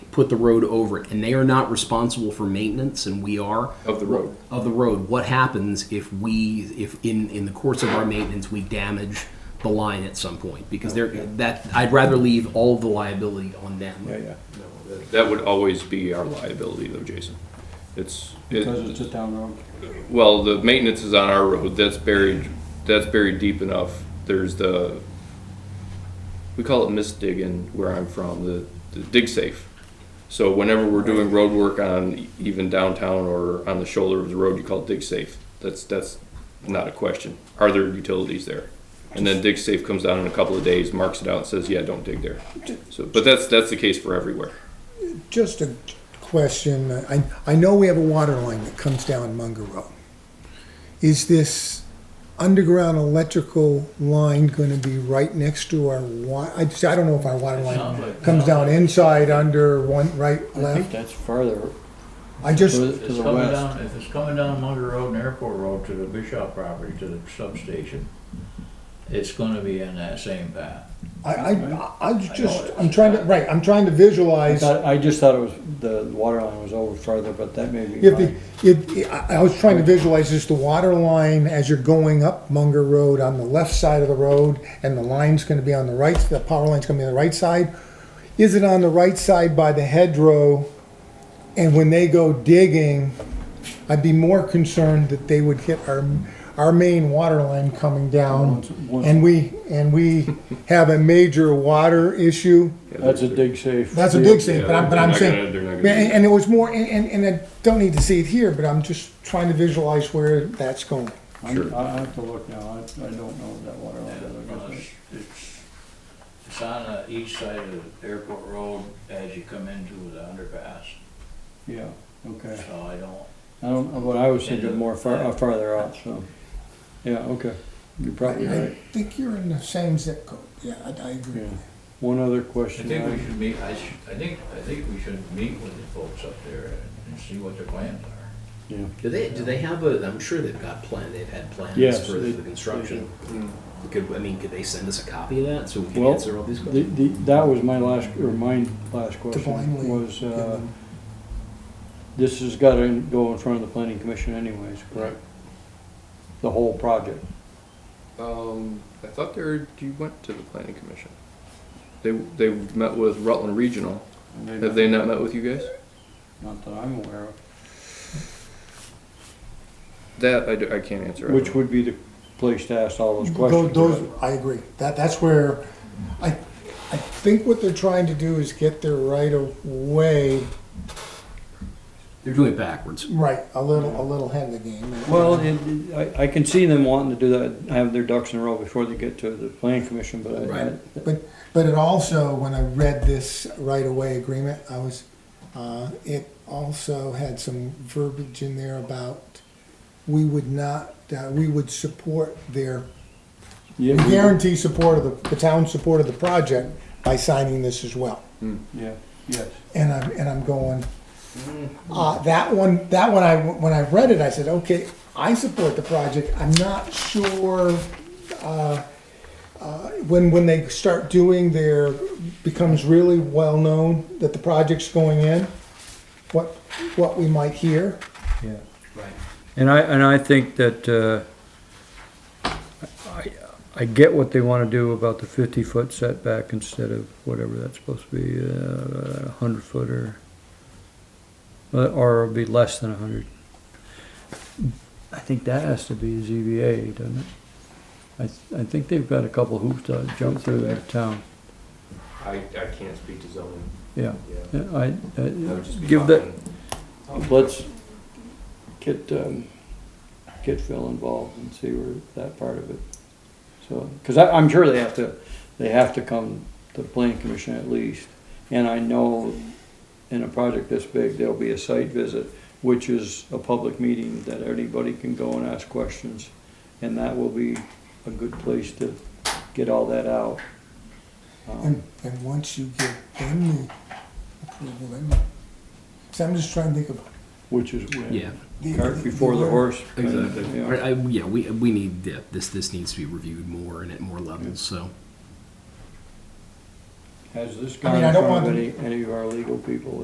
put the road over it, and they are not responsible for maintenance, and we are Of the road. Of the road. What happens if we, if in in the course of our maintenance, we damage the line at some point? Because they're that I'd rather leave all the liability on them. Yeah, yeah. That would always be our liability though, Jason. It's, Because it, it's a town road. well, the maintenance is on our road, that's buried, that's buried deep enough. There's the, we call it misdigging where I'm from, the, the dig safe. So whenever we're doing road work on even downtown or on the shoulder of the road, you call it dig safe. That's, that's not a question. Are there utilities there? And then dig safe comes down in a couple of days, marks it out and says, yeah, don't dig there. So, but that's, that's the case for everywhere. Just a question. I, I know we have a water line that comes down Munger Road. Is this underground electrical line gonna be right next to our wa, I just, I don't know if our water line comes down inside, under, one, right, I think left? that's further I to just, the- To to the the west. west. down, if it's coming down Munger Road and Airport Road to the Bishop property, to the substation, it's gonna be in that same path. I, I, I just, I'm trying to, right, I'm trying to visualize. I I just thought it was, the water line was over further, but that may be If the, right. if, I I was trying to visualize is the water line as you're going up Munger Road on the left side of the road, and the line's gonna be on the right, the power line's gonna be on the right side. Is it on the right side by the hedgerow? And when they go digging, I'd be more concerned that they would hit our, our main water line coming down. once- And we, and we have a major water issue. That's a dig safe. That's a deal. big thing, but I'm, but I'm Yeah, they're not saying, gonna- they're not and, gonna do and it was more, and, and- and I don't need to see it here, but I'm just trying to visualize where that's going. I'm- I I have to look now, I, I don't know that water Well, line. It's it's- it's on the east side of Airport Road as you come into the underpass, Yeah, okay. so I don't, I don't, what I was thinking more far, uh, farther out, so, yeah, okay, you're probably I right, think you're in the same zip code, yeah, I, I agree. yeah. One other I question. think we I- should meet, I should, I think, I think we should meet with the folks up there and see what their plans are. Yeah, Do they, do they have a, I'm sure they've got plan, they've had plans Yes, for they- Mm-hmm. the construction. Could, I mean, could they send us a copy of that so we can Well, answer all these the, questions? the, that was my last, or my last blindly question was, give uh, them- this has gotta go in front of the planning commission anyways, correct? The whole project. Um, I thought they were, you went to the planning commission. They, they met with Rutland Regional. Have they not met with you guys? Not that I'm aware of. That I, do- I can't answer. I Which don't know. would be the place to ask all those Tho- questions. Those, I agree, that, that's where, I, I think what they're trying to do is get their right of way, They're doing it backwards. right, a little, a little ahead of the game. Well, it, it- I, I can see them wanting to do that, have their ducks in a row before they get to the planning commission, but Right. I, But, but it also, when I read this right-of-way agreement, I was, uh, it also had some verbiage in there about we would not, uh, we would support their, yeah, we- guarantee support of the, the town's support of the project by signing this as well. yeah, yes. And I'm, and I'm going, uh, that one, that one, I, when I read it, I said, okay, I support the project, I'm not sure, uh, uh, when, when they start doing their, becomes really well-known that the project's going in, what, what we might hear. Yeah. Right. And I, and I think that, uh, I, I get what they wanna do about the fifty-foot setback instead of whatever that's supposed to be, uh, a hundred foot or, or it'll be less than a hundred. I think that has to be ZBA, doesn't it? I, th- I think they've got a couple hoops to jump through out of town, I, I can't speak to zoning. yeah. Yeah. Yeah, I, I, I would just be give that, talking. Let's get, um, get Phil involved and see where that part of it. So, cause I, I'm sure they have to, they have to come to the planning commission at least. And I know in a project this big, there'll be a site visit, which is a public meeting that anybody can go and ask questions. And that will be a good place to get all that out. And, Um, and once you give them the approval, then, so I'm just trying to think of. Which is when. Yeah, the- Cart before the horse. exactly. Yeah. I, I- yeah, we, we need, yeah, this, this needs to be reviewed more and at more levels, so. Has this I gone mean, I in don't front of want any, any of our legal people